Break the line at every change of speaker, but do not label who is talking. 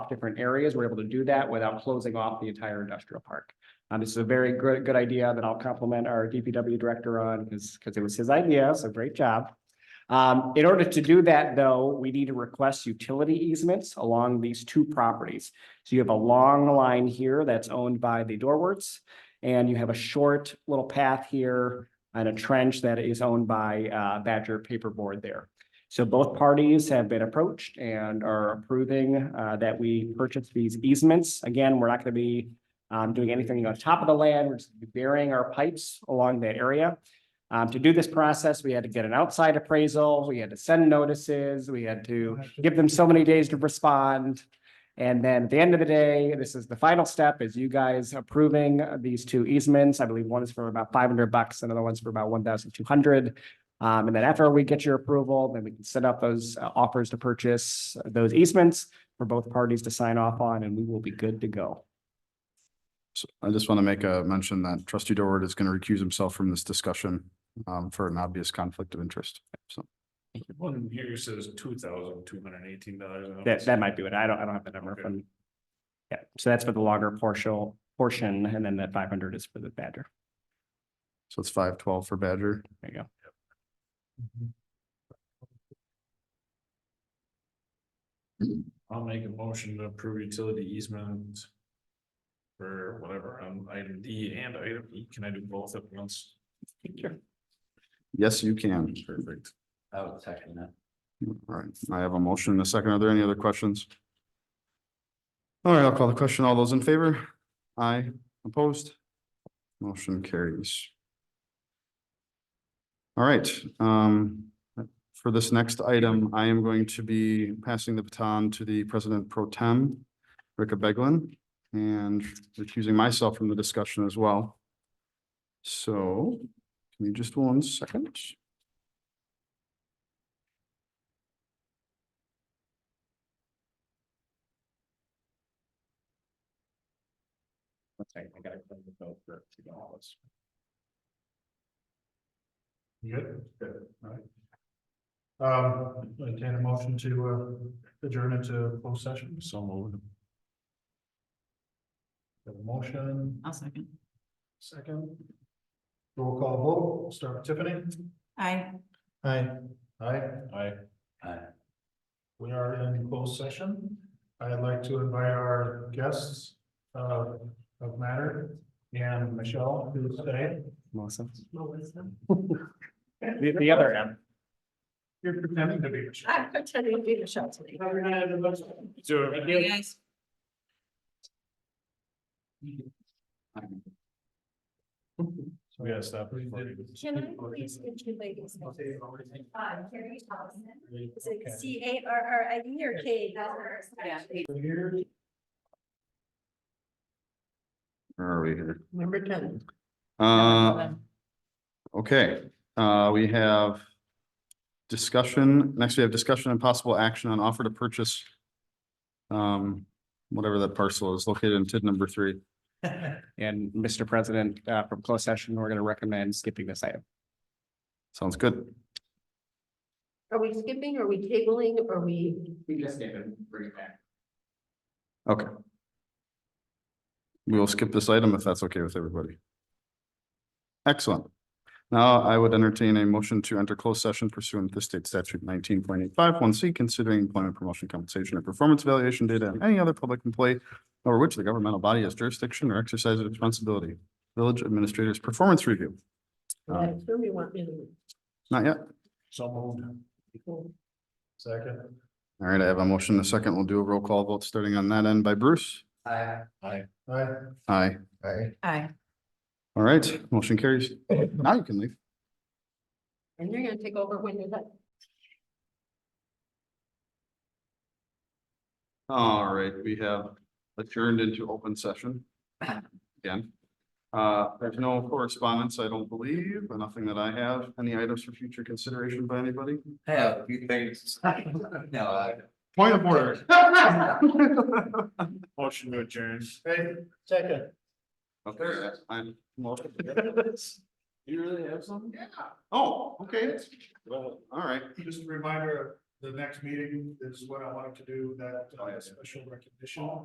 different areas. We're able to do that without closing off the entire industrial park. Uh, this is a very good, good idea that I'll compliment our DPW director on because, because it was his idea. So great job. Um, in order to do that, though, we need to request utility easements along these two properties. So you have a long line here that's owned by the Dorwerts. And you have a short little path here and a trench that is owned by uh, Badger Paperboard there. So both parties have been approached and are approving uh, that we purchase these easements. Again, we're not going to be um, doing anything on top of the land, we're just burying our pipes along that area. Um, To do this process, we had to get an outside appraisal, we had to send notices, we had to give them so many days to respond. And then at the end of the day, this is the final step, is you guys approving these two easements. I believe one is for about five hundred bucks, another one's for about one thousand two hundred. Um, and then after we get your approval, then we can set up those uh, offers to purchase those easements for both parties to sign off on, and we will be good to go.
So I just want to make a mention that trustee Dorward is going to recuse himself from this discussion um, for an obvious conflict of interest. So
One here says two thousand two hundred and eighteen dollars.
That, that might be it. I don't, I don't have the number
Okay.
from. Yeah, so that's for the longer portion, portion, and then that five hundred is for the Badger.
so it's five twelve for Badger.
There you go.
I'll make a motion to approve utility easement. For whatever, on item D and item E, can I do both at once?
Yes, you can.
Perfect.
I would second that.
All right, I have a motion and a second. Are there any other questions? All right, I'll call the question. All those in favor? Aye, opposed? Motion carries. All right, um, for this next item, I am going to be passing the baton to the President Pro Tem, Rika Beglin, and recusing myself from the discussion as well. So, give me just one second.
Okay, I gotta close the vote for two dollars.
Good, good, all right. Um, entertain a motion to uh, adjourn into closed session.
So moved.
Have a Motion,
I'll second.
second. Roll call vote, We'll start with Tiffany.
Aye.
Aye. Aye.
Aye.
Aye.
We are in closed session. I'd like to invite our guests uh, of matter and Michelle to stay.
Melissa?
Melissa.
The, the other M.
You're pretending to be Michelle.
I'm pretending to be Michelle today. Hey, guys.
We gotta stop. recording.
Can I please get two ladies?
Okay,
Um, Carrie Thompson, is
Okay.
it C A R R I E or K?
Yeah.
Here.
Where are we here?
Number ten.
Uh, Okay, uh, we have discussion, next we have discussion and possible action on offer to purchase um, whatever that parcel is located in TID number three.
And Mr. President, uh, from closed session, we're gonna recommend skipping this item.
Sounds good.
Are we skipping, are we tabling, are we?
We just skip it, bring it back.
Okay. We will skip this item if that's okay with everybody. Excellent. Now I would entertain a motion to enter closed session pursuant to state statute nineteen point eight five one C, considering employment promotion compensation or performance evaluation data and any other public employee over which the governmental body has jurisdiction or exercises responsibility. Village Administrator's Performance Review. Uh,
That's where we want me to.
Not yet.
So moved. Second.
All right, I have a motion and a second. We'll do a roll call vote starting on that end by Bruce.
Aye.
Aye.
Aye.
Aye.
All right, motion carries. Now you can leave.
And you're gonna take over when you're done.
All right, we have adjourned into open session again. Uh, there's no correspondence, I don't believe, but nothing that I have. Any items for future consideration by anybody?
I have a few things. No, I.
Point of order.
Motion to adjourn.
Hey, second.
Okay, I'm.
You really have something?
Oh, okay.
Well,
All right.
Just a reminder, the next meeting is what I wanted to do, that uh,
Oh, yeah.
special recognition.